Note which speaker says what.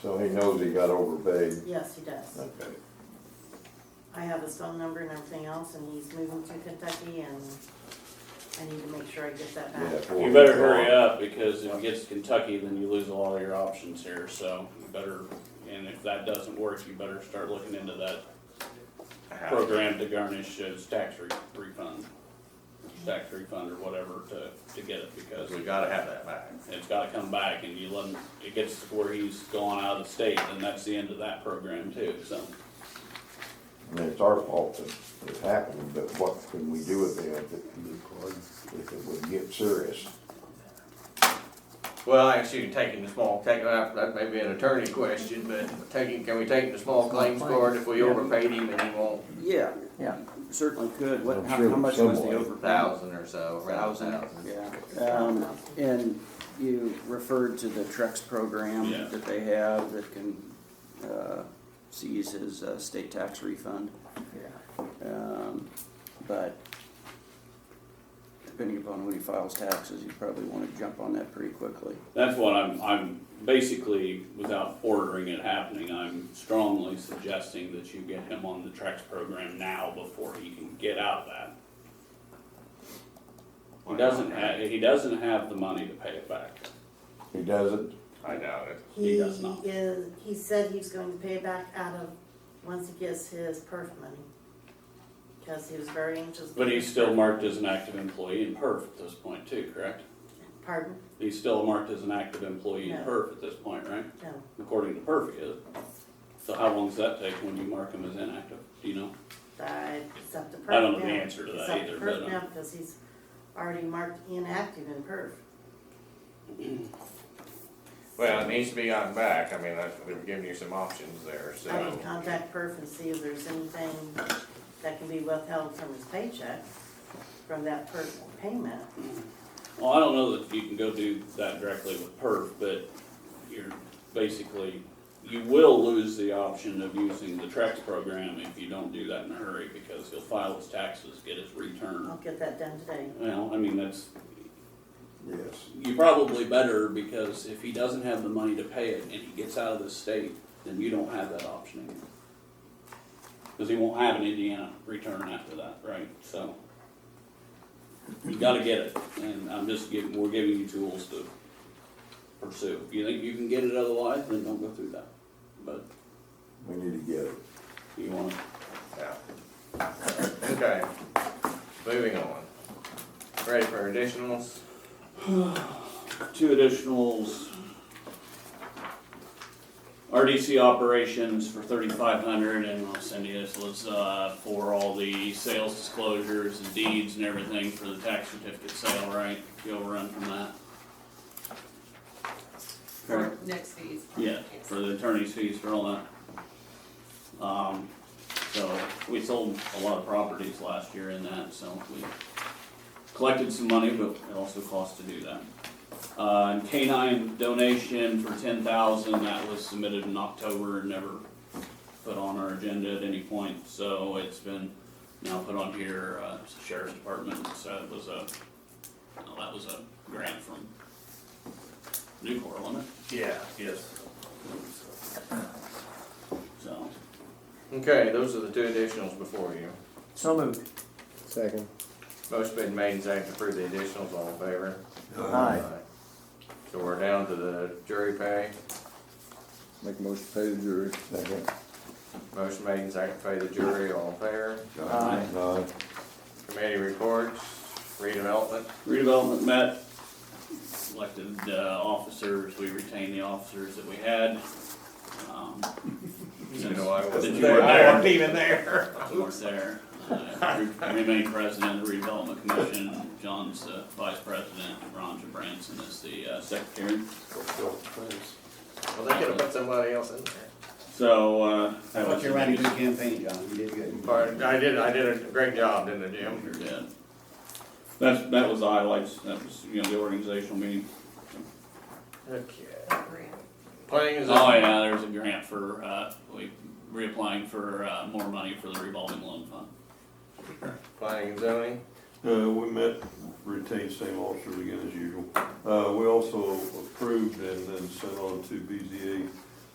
Speaker 1: So he knows he got overpaid.
Speaker 2: Yes, he does.
Speaker 1: Okay.
Speaker 2: I have his phone number and everything else, and he's moving to Kentucky, and I need to make sure I get that
Speaker 1: Yeah,
Speaker 2: back.
Speaker 1: four
Speaker 3: You better
Speaker 1: weeks
Speaker 3: hurry
Speaker 1: off.
Speaker 3: up, because if it gets to Kentucky, then you lose a lot of your options here, so you better, and if that doesn't work, you better start looking into that program to garnish his tax re- refund, tax refund or whatever to, to get it, because
Speaker 4: we gotta have that back.
Speaker 3: it's gotta come back, and you let him, it gets to where he's gone out of the state, then that's the end of that program too, so.
Speaker 1: I mean, it's our fault that it happened, but what can we do with it if it, if it would get serious?
Speaker 4: Well, actually, taking the small, taking, that, that may be an attorney question, but taking, can we take the small claims court if we overpaid him and he won't
Speaker 5: Yeah,
Speaker 6: Yeah,
Speaker 5: certainly could. What,
Speaker 1: I'm
Speaker 5: how
Speaker 1: sure
Speaker 5: how much was the
Speaker 1: somewhere.
Speaker 5: over?
Speaker 4: thousand or so, around
Speaker 5: Thousand,
Speaker 4: thousand?
Speaker 5: yeah. Um, and you referred to the Trex program
Speaker 3: Yeah.
Speaker 5: that they have that can, uh, seize his uh, state tax refund. Um, but depending upon when he files taxes, you probably wanna jump on that pretty quickly.
Speaker 3: That's what I'm, I'm basically, without ordering it happening, I'm strongly suggesting that you get him on the Trex program now before he can get out of that. He doesn't have, he doesn't have the money to pay it back.
Speaker 1: He doesn't,
Speaker 4: I doubt it.
Speaker 2: He
Speaker 3: does not.
Speaker 2: is, he said he's going to pay back out of, once he gets his perf money. Because he was very anxious.
Speaker 3: But he's still marked as an active employee in perf at this point too, correct?
Speaker 2: Pardon?
Speaker 3: He's still marked as an active employee in
Speaker 2: No.
Speaker 3: perf at this point, right?
Speaker 2: No,
Speaker 3: According to perf, he is. So how long does that take when you mark him as inactive? Do you know?
Speaker 2: I, it's up to perf.
Speaker 3: I don't know the
Speaker 2: now.
Speaker 3: answer to
Speaker 2: It's
Speaker 3: that
Speaker 2: up
Speaker 3: either,
Speaker 2: perf
Speaker 3: but, um,
Speaker 2: now, because he's already marked inactive in perf.
Speaker 4: Well, it needs to be gotten back, I mean, I, they've given you some options there, so.
Speaker 2: I can contact perf and see if there's anything that can be withheld from his paycheck, from that perf payment.
Speaker 3: Well, I don't know that you can go do that directly with perf, but you're basically, you will lose the option of using the Trex program if you don't do that in a hurry, because he'll file his taxes, get his
Speaker 2: I'll
Speaker 3: return.
Speaker 2: get that done today.
Speaker 3: Well, I mean, that's,
Speaker 1: yes.
Speaker 3: you probably better, because if he doesn't have the money to pay it and he gets out of the state, then you don't have that option anymore. Because he won't have an Indiana return after that, right? So you gotta get it, and I'm just giving, we're giving you tools to pursue. If you think you can get it otherwise, then don't go through that. But
Speaker 1: We need to get it.
Speaker 3: you wanna,
Speaker 4: Yeah. Okay, moving on. Ready for additionals?
Speaker 3: two additionals. RDC operations for thirty-five hundred, and I'll send you this, was, uh, for all the sales disclosures and deeds and everything for the tax certificate sale, right? You'll run from that,
Speaker 7: For next fees.
Speaker 3: yeah,
Speaker 7: Yes.
Speaker 3: for the attorney's fees for all that. Um, so, we sold a lot of properties last year in that, so we collected some money, but it also cost to do that. Uh, and canine donation for ten thousand, that was submitted in October and never put on our agenda at any point, so it's been now put on here, uh, it's the sheriff's department, so it was a, well, that was a grant from Newport, wasn't
Speaker 4: Yeah, yes.
Speaker 3: it? So,
Speaker 4: Okay, those are the two additionals before you.
Speaker 6: so moved.
Speaker 1: Second.
Speaker 4: Motion been made and seconded to approve the additionals, all in favor?
Speaker 6: Aye.
Speaker 4: So we're down to the jury pay.
Speaker 1: Make a motion to pay the jury. Second.
Speaker 4: Motion made and seconded to pay the jury, all in favor?
Speaker 6: Aye.
Speaker 1: Aye.
Speaker 4: Committee reports, redevelopment.
Speaker 3: redevelopment met, selected, uh, officers, we retained the officers that we had. Um,
Speaker 4: You know, I
Speaker 3: Did
Speaker 4: wasn't
Speaker 3: you
Speaker 4: there.
Speaker 3: work
Speaker 4: I
Speaker 3: there?
Speaker 4: wasn't even there.
Speaker 3: I work there. I remain president of the redevelopment commission. John's the vice president. Ron Branson is the uh, secretary.
Speaker 4: Well, they could have put somebody else in there.
Speaker 3: So, uh.
Speaker 8: I thought you ran a good campaign, John, you did good.
Speaker 4: But I did, I did a great job, didn't I, Jim?
Speaker 3: You're dead. That's, that was the highlights. That was, you know, the organizational meeting.
Speaker 4: Okay.
Speaker 7: Grant.
Speaker 4: Planning is.
Speaker 3: Oh, yeah, there's a grant for, uh, we reapplying for, uh, more money for the revolving loan fund.
Speaker 4: Planning and zoning.
Speaker 9: Uh, we met, retained same officers again as usual. Uh, we also approved and then sent on to BZA